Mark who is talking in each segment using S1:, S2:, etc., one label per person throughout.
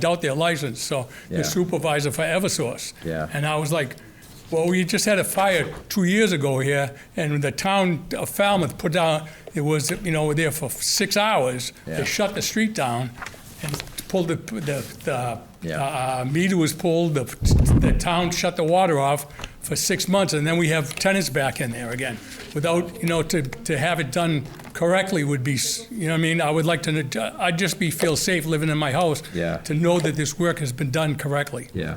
S1: doubt their license, so
S2: Yeah.
S1: the supervisor for Eversource.
S2: Yeah.
S1: And I was like, well, we just had a fire two years ago here, and the town of Falmouth put down, it was, you know, there for six hours.
S2: Yeah.
S1: They shut the street down and pulled the, the, the
S2: Yeah.
S1: uh, meter was pulled, the, the town shut the water off for six months, and then we have tenants back in there again. Without, you know, to, to have it done correctly would be, s- you know what I mean? I would like to, I'd just be, feel safe living in my house.
S2: Yeah.
S1: To know that this work has been done correctly.
S2: Yeah,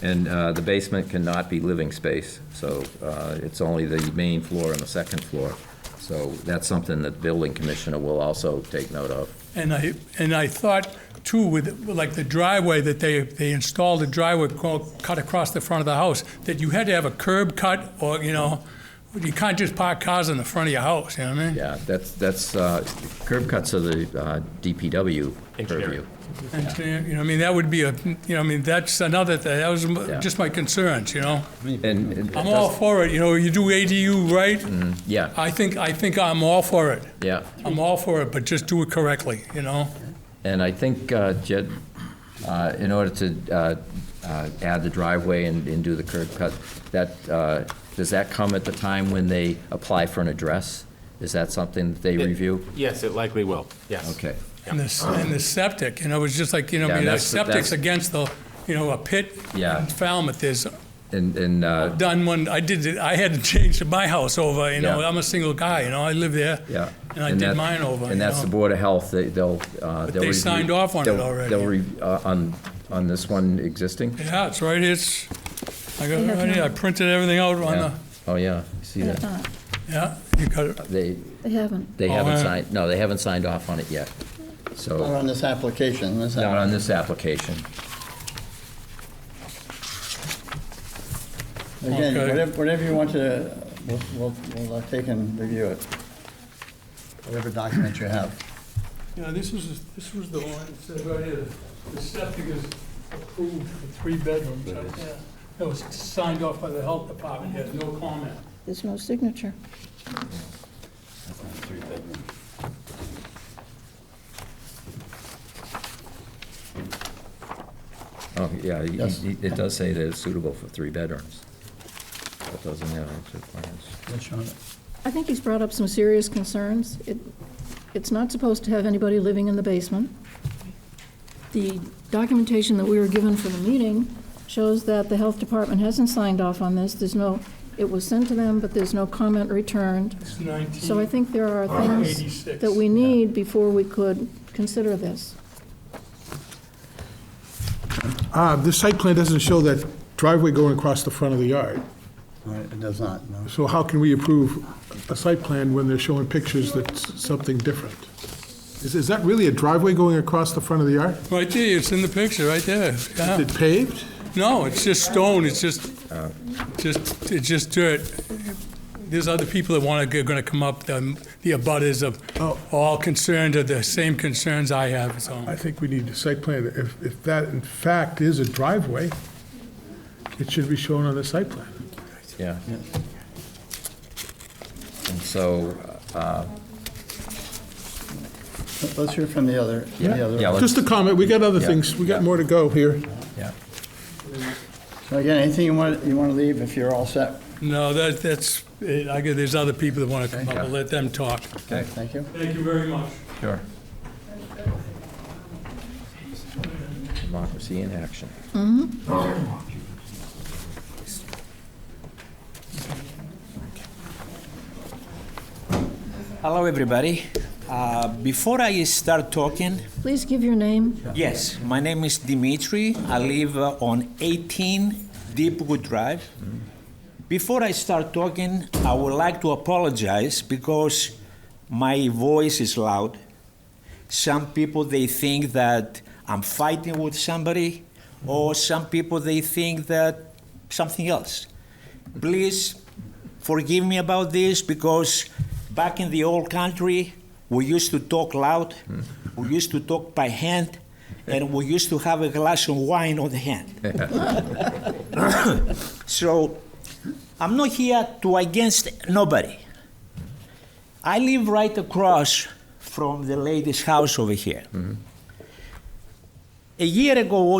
S2: and uh, the basement cannot be living space, so uh, it's only the main floor and the second floor. So that's something that the building commissioner will also take note of.
S1: And I, and I thought too, with, like the driveway that they, they installed a driveway co- cut across the front of the house, that you had to have a curb cut or, you know, you can't just park cars in the front of your house, you know what I mean?
S2: Yeah, that's, that's, uh, curb cuts are the uh, DPW purview.
S3: Engineering.
S1: And, uh, you know, I mean, that would be a, you know, I mean, that's another, thing. that was just my concerns, you know?
S2: And it
S1: I'm all
S2: does- Mm-hmm.
S1: for it, you know, you do ADU right,
S2: Yeah,
S1: I think, I think I'm all for it.
S2: yeah.
S1: I'm all for it, but just do it correctly, you know?
S2: And I think, uh, Jed, uh, in order to uh, uh, add the driveway and and do the curb cut, that, uh, does that come at the time when they apply for an address? Is that something that they review?
S3: Yes, it likely will, yes.
S2: Okay.
S1: And the, and the septic, you know, it was just like, you know,
S2: Yeah,
S1: I mean, the
S2: that's-
S1: septic's
S2: that's-
S1: against the, you know, a pit.
S2: Yeah.
S1: in Falmouth, there's
S2: And, and, uh,
S1: done one, I did, it- I had to change my house over, you know,
S2: Yeah.
S1: I'm a single guy, you know, I live there.
S2: yeah.
S1: And I did
S2: that-
S1: mine over, you
S2: And that's the
S1: know?
S2: Board of Health, they- they'll, uh, they'll.
S1: they
S2: review-
S1: signed off on it
S2: they'll-
S1: already.
S2: They'll, re- uh, on, on this one existing?
S1: Yeah, it's right, it's, I got,
S4: They
S1: it
S4: have
S1: right here. I
S4: not.
S1: printed everything out on
S2: Yeah.
S1: the,
S2: Oh, yeah, I see
S4: They have
S2: that?
S4: not.
S1: yeah, you got it.
S2: They,
S4: Uh, They haven't.
S2: they
S1: Oh,
S2: haven't
S1: yeah.
S2: signed, no, they haven't signed off on it yet.
S5: Not
S2: So,
S5: on this application, this
S2: not on
S5: app-
S2: this application.
S5: Again,
S1: Okay.
S5: whatever, whatever you want to, we'll, we'll, we'll uh, take and review it. Whatever document you have.
S1: Yeah, this is, this was the one, it said right here, the septic is approved for three bedrooms. Yeah. That was signed off by the health department, There's no comment.
S4: There's no signature.
S2: Oh, yeah, he-
S5: Yes.
S2: he- it does say that it's suitable for three bedrooms. That doesn't have actual plans.
S5: Which one?
S4: I think he's brought up some serious concerns. It, it's not supposed to have anybody living in the basement. The documentation that we were given for the meeting shows that the health department hasn't signed off on this. There's no, it was sent to them, but there's no comment returned.
S1: It's 19.
S4: So I think there are things
S1: 86.
S4: that we need before we could consider this.
S6: Ah, the site plan doesn't show that driveway going across the front of the yard.
S5: All right, It does not, no.
S6: So how can we approve a site plan when they're showing pictures that's something different? Is, is that really a driveway going across the front of the yard?
S1: Right there, it's in the picture, right there.
S6: Is
S1: Yeah.
S6: it paved?
S1: No, it's just stone, it's just,
S6: Uh.
S1: just, it's just dirt. There's other people that want to, going to come up, the the abutters of,
S6: Oh.
S1: all concerned, are the same concerns I have, so.
S6: I think we need a site plan. If, if that in fact is a driveway, it should be shown on the site plan.
S2: Yeah. And so, uh,
S5: Let's hear from the other, the
S2: Yeah.
S5: other.
S2: Yeah, let's-
S6: Just a comment, we got other
S2: Yeah.
S6: things, we got more to go here.
S2: yeah.
S5: So again, anything you want, you want to leave if you're all set?
S1: No, that, that's, it. I guess there's other people that want to come up, I'll let them talk.
S2: Okay.
S5: Thank you.
S1: Thank you very much.
S2: Sure. Democracy in action.
S7: Hello, everybody. Uh, Before I start talking,
S4: Please give your name.
S7: yes, my name is Dimitri. I live uh, on 18 Deepwood Drive. Before I start talking, I would like to apologize because my voice is loud. Some people they think that I'm fighting with somebody, or some people they think that something else. Please forgive me about this because back in the old country, we used to talk loud, we used to talk by hand, and we used to have a glass of wine on the hand. so I'm not here to against nobody. I live right across from the lady's house over here. A year ago,